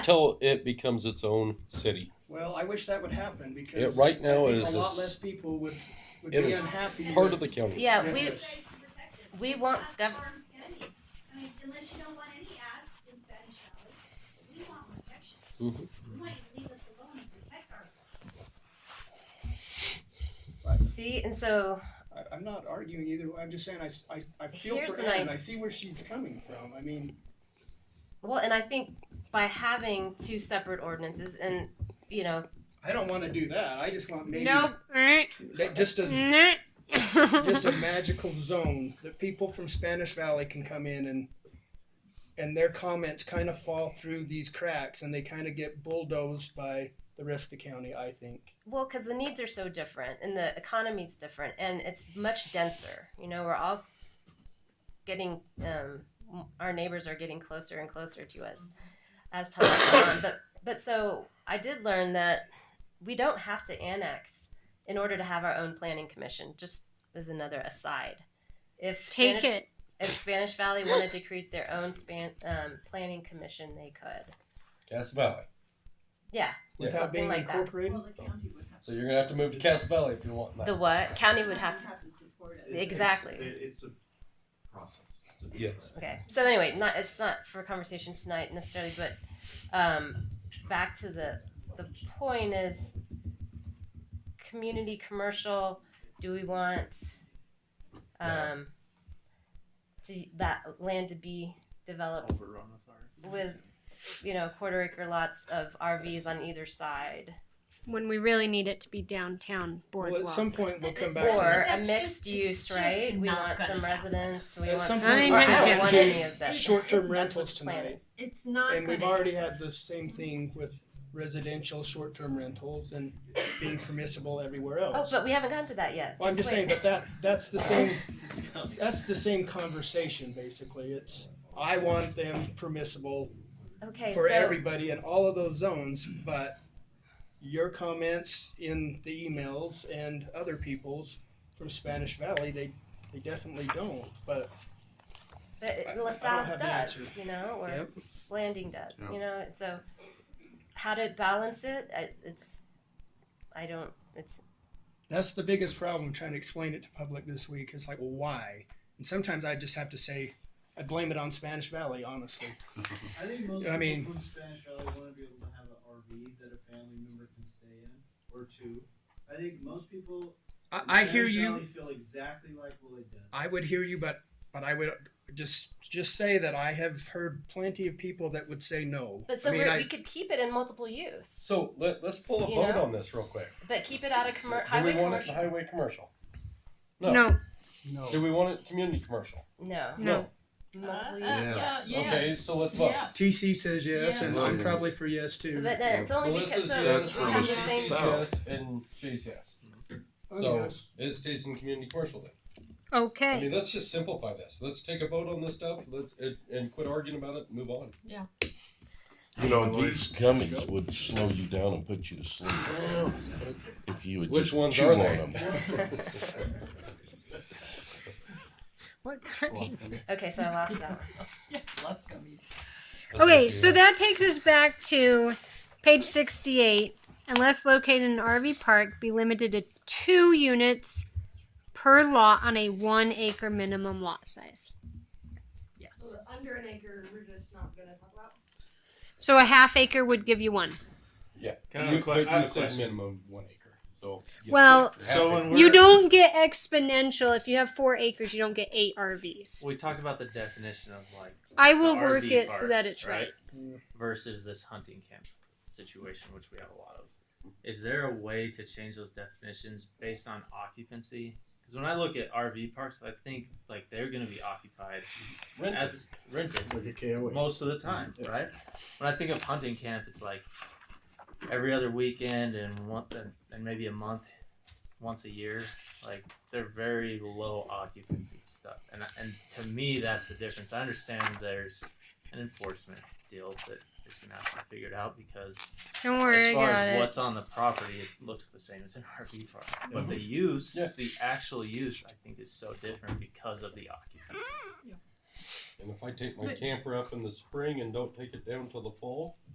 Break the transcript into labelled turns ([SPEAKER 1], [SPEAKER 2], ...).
[SPEAKER 1] till it becomes its own city.
[SPEAKER 2] Well, I wish that would happen
[SPEAKER 1] Yeah,
[SPEAKER 2] because
[SPEAKER 1] right now
[SPEAKER 2] I
[SPEAKER 1] it
[SPEAKER 2] think
[SPEAKER 1] is
[SPEAKER 2] a
[SPEAKER 1] a
[SPEAKER 2] lot less
[SPEAKER 1] s-
[SPEAKER 2] people would, would
[SPEAKER 1] it
[SPEAKER 2] be
[SPEAKER 1] is
[SPEAKER 2] unhappy.
[SPEAKER 1] part
[SPEAKER 2] with-
[SPEAKER 1] of the county.
[SPEAKER 3] Yeah, we,
[SPEAKER 2] Yes.
[SPEAKER 3] we want
[SPEAKER 4] Ask
[SPEAKER 3] gov-
[SPEAKER 4] farms any. I mean, unless you don't want any ads in Spanish Valley, we want protection.
[SPEAKER 2] Mm-hmm.
[SPEAKER 1] Mhm.
[SPEAKER 4] You might leave us alone and protect our.
[SPEAKER 3] see, and so
[SPEAKER 2] I, I'm not arguing either way. I'm just saying I, s- I- I feel
[SPEAKER 3] Here's
[SPEAKER 2] for
[SPEAKER 3] an
[SPEAKER 2] Ann.
[SPEAKER 3] i-
[SPEAKER 2] I see where she's coming from. I mean,
[SPEAKER 3] well, and I think by having two separate ordinances, and you know,
[SPEAKER 2] I don't want to do that. I just want maybe
[SPEAKER 5] Nope. Alright.
[SPEAKER 2] that just a
[SPEAKER 5] Nah.
[SPEAKER 2] just a magical zone that people from Spanish Valley can come in and and their comments kind of fall through these cracks and they kind of get bulldozed by the rest of the county. I think.
[SPEAKER 3] well, because the needs are so different, and the economy's different, and it's much denser. You know, we're all getting, um, our neighbors are getting closer and closer to us as time goes on. But but so I did learn that we don't have to annex in order to have our own planning commission. Just as another aside, if
[SPEAKER 5] Take
[SPEAKER 3] Spanish-
[SPEAKER 5] it.
[SPEAKER 3] If Spanish Valley wanted to create their own span, um, planning commission, they could.
[SPEAKER 1] Cass Valley.
[SPEAKER 3] Yeah,
[SPEAKER 1] Yeah.
[SPEAKER 2] Without
[SPEAKER 3] Something
[SPEAKER 2] being
[SPEAKER 3] like that.
[SPEAKER 2] incorporated.
[SPEAKER 6] Well, the county would have.
[SPEAKER 1] So you're gonna have to move to Cass Valley if you want
[SPEAKER 3] the
[SPEAKER 1] that.
[SPEAKER 3] what county would have to.
[SPEAKER 6] support it.
[SPEAKER 7] It-
[SPEAKER 3] Exactly.
[SPEAKER 7] It, it's a process. It's a
[SPEAKER 1] Yes.
[SPEAKER 7] process.
[SPEAKER 3] Okay. So anyway, not it's not for conversation tonight necessarily, but um, back to the the point is community commercial. Do we want um, to, that land to be developed
[SPEAKER 7] Overrun with our-
[SPEAKER 3] with you know quarter acre lots of RVs on either side,
[SPEAKER 5] When we really need it to be downtown
[SPEAKER 2] Well,
[SPEAKER 5] boardwalk.
[SPEAKER 2] at some point we'll come back to
[SPEAKER 3] or
[SPEAKER 2] that.
[SPEAKER 3] a
[SPEAKER 6] That's just-
[SPEAKER 3] mixed
[SPEAKER 6] it's
[SPEAKER 3] use,
[SPEAKER 6] just
[SPEAKER 3] right? We
[SPEAKER 6] not
[SPEAKER 3] want
[SPEAKER 6] gonna
[SPEAKER 3] some
[SPEAKER 6] happen.
[SPEAKER 3] residents. We
[SPEAKER 2] At
[SPEAKER 3] want
[SPEAKER 2] some
[SPEAKER 3] some.
[SPEAKER 5] I
[SPEAKER 2] point
[SPEAKER 5] think
[SPEAKER 3] or I
[SPEAKER 5] that's
[SPEAKER 3] don't
[SPEAKER 5] it.
[SPEAKER 3] want any of that.
[SPEAKER 2] Short-term
[SPEAKER 3] That's
[SPEAKER 2] rentals
[SPEAKER 3] what's planned.
[SPEAKER 2] tonight.
[SPEAKER 6] It's not
[SPEAKER 2] And we've
[SPEAKER 6] gonna
[SPEAKER 2] already had the same thing with residential short-term rentals and being permissible everywhere
[SPEAKER 3] Oh,
[SPEAKER 2] else.
[SPEAKER 3] but we haven't gotten to that yet.
[SPEAKER 2] Well, I'm just saying, but that, that's the same,
[SPEAKER 7] It's coming.
[SPEAKER 2] that's the same conversation, basically. It's, I want them permissible
[SPEAKER 3] Okay,
[SPEAKER 2] for
[SPEAKER 3] so
[SPEAKER 2] everybody in all of those zones, but your comments in the emails and other people's from Spanish Valley, they, they definitely don't, but
[SPEAKER 3] but
[SPEAKER 2] I- I don't
[SPEAKER 3] LaSalle
[SPEAKER 2] have the
[SPEAKER 3] does,
[SPEAKER 2] answer.
[SPEAKER 3] you know, or
[SPEAKER 2] Yep.
[SPEAKER 3] Landing does,
[SPEAKER 7] Yeah.
[SPEAKER 3] you know. and So how to balance it? I, it's I don't. It's
[SPEAKER 2] That's the biggest problem trying to explain it to public this week. It's like, well, why? And sometimes I just have to say, I blame it on Spanish Valley, honestly.
[SPEAKER 8] I think most
[SPEAKER 2] I mean-
[SPEAKER 8] people from Spanish Valley want to be able to have an RV that a family member can stay in or two. I think most people.
[SPEAKER 2] I,
[SPEAKER 8] in
[SPEAKER 2] I hear
[SPEAKER 8] Spanish
[SPEAKER 2] you.
[SPEAKER 8] Valley feel exactly like Willie does.
[SPEAKER 2] I would hear you, but but I would just just say that I have heard plenty of people that would say no.
[SPEAKER 3] but so
[SPEAKER 2] I mean,
[SPEAKER 3] we're,
[SPEAKER 2] I,
[SPEAKER 3] we could keep it in multiple use,
[SPEAKER 1] So let, let's pull a
[SPEAKER 3] You
[SPEAKER 1] vote
[SPEAKER 3] know?
[SPEAKER 1] on this real quick.
[SPEAKER 3] but keep it out of commer-
[SPEAKER 1] Do we
[SPEAKER 3] highway
[SPEAKER 1] want it
[SPEAKER 3] commercial.
[SPEAKER 1] highway commercial?
[SPEAKER 5] no.
[SPEAKER 1] Do we want it community commercial?
[SPEAKER 3] No,
[SPEAKER 5] No.
[SPEAKER 3] multiple use.
[SPEAKER 6] Uh, uh,
[SPEAKER 7] Yes.
[SPEAKER 6] yeah,
[SPEAKER 1] Okay,
[SPEAKER 6] yes,
[SPEAKER 1] so let's vote.
[SPEAKER 6] yes.
[SPEAKER 2] TC says yes,
[SPEAKER 6] Yeah.
[SPEAKER 2] and I'm probably for yes too.
[SPEAKER 3] But then it's only because
[SPEAKER 1] Melissa's
[SPEAKER 3] so
[SPEAKER 1] yes,
[SPEAKER 3] we have the
[SPEAKER 6] Melissa's
[SPEAKER 3] same.
[SPEAKER 6] yes.
[SPEAKER 1] yes, and Jay's yes.
[SPEAKER 2] Oh,
[SPEAKER 1] So it stays in community commercial then. I
[SPEAKER 5] Okay.
[SPEAKER 1] mean, let's just simplify this. Let's take a vote on this stuff. Let's and, and quit arguing about it. and Move on.
[SPEAKER 9] You know, these gummies would slow you down and put you to sleep if you would
[SPEAKER 1] Oh. Which
[SPEAKER 9] just
[SPEAKER 1] ones
[SPEAKER 9] chew
[SPEAKER 1] are
[SPEAKER 9] on
[SPEAKER 1] they?
[SPEAKER 9] them.
[SPEAKER 5] What kind?
[SPEAKER 3] Okay, so I lost that.
[SPEAKER 6] Love gummies.
[SPEAKER 5] Okay, so that takes us back to page 68. Unless located in an RV park, be limited to two units per lot on a one acre minimum lot size. Yes.
[SPEAKER 4] Under an acre, we're just not gonna talk about.
[SPEAKER 5] So a half acre would give you one.
[SPEAKER 7] Can I have a
[SPEAKER 1] You-
[SPEAKER 7] que-
[SPEAKER 1] but
[SPEAKER 7] I have
[SPEAKER 1] you
[SPEAKER 7] a
[SPEAKER 1] said
[SPEAKER 7] question.
[SPEAKER 1] minimum one acre. So yes.
[SPEAKER 5] Well-
[SPEAKER 1] Half
[SPEAKER 7] So when
[SPEAKER 1] acre.
[SPEAKER 7] we're,
[SPEAKER 5] You don't get exponential. If you have four acres, you don't get eight RVs.
[SPEAKER 10] We talked about the definition of like
[SPEAKER 5] I will
[SPEAKER 10] The
[SPEAKER 5] work
[SPEAKER 10] RV
[SPEAKER 5] it so
[SPEAKER 10] part,
[SPEAKER 5] that it's right.
[SPEAKER 10] right versus this hunting camp situation, which we have a lot of. Is there a way to change those definitions based on occupancy? Because when I look at RV parks, I think like they're going to be occupied
[SPEAKER 1] Rented.
[SPEAKER 10] as rented
[SPEAKER 8] like a KOA.
[SPEAKER 10] most of the time, right? When I think of hunting camp, it's like every other weekend and one and maybe a month, once a year. Like they're very low occupancy stuff, and and to me that's the difference. I understand there's an enforcement deal that is gonna have to be figured out because
[SPEAKER 5] Don't worry,
[SPEAKER 10] as
[SPEAKER 5] I
[SPEAKER 10] far
[SPEAKER 5] got
[SPEAKER 10] as
[SPEAKER 5] it.
[SPEAKER 10] what's on the property, it looks the same as an RV park. But the use,
[SPEAKER 1] Yeah.
[SPEAKER 10] the actual use, I think is so different because of the occupancy.
[SPEAKER 1] and if I take my camper up in the spring and don't take it down till the fall,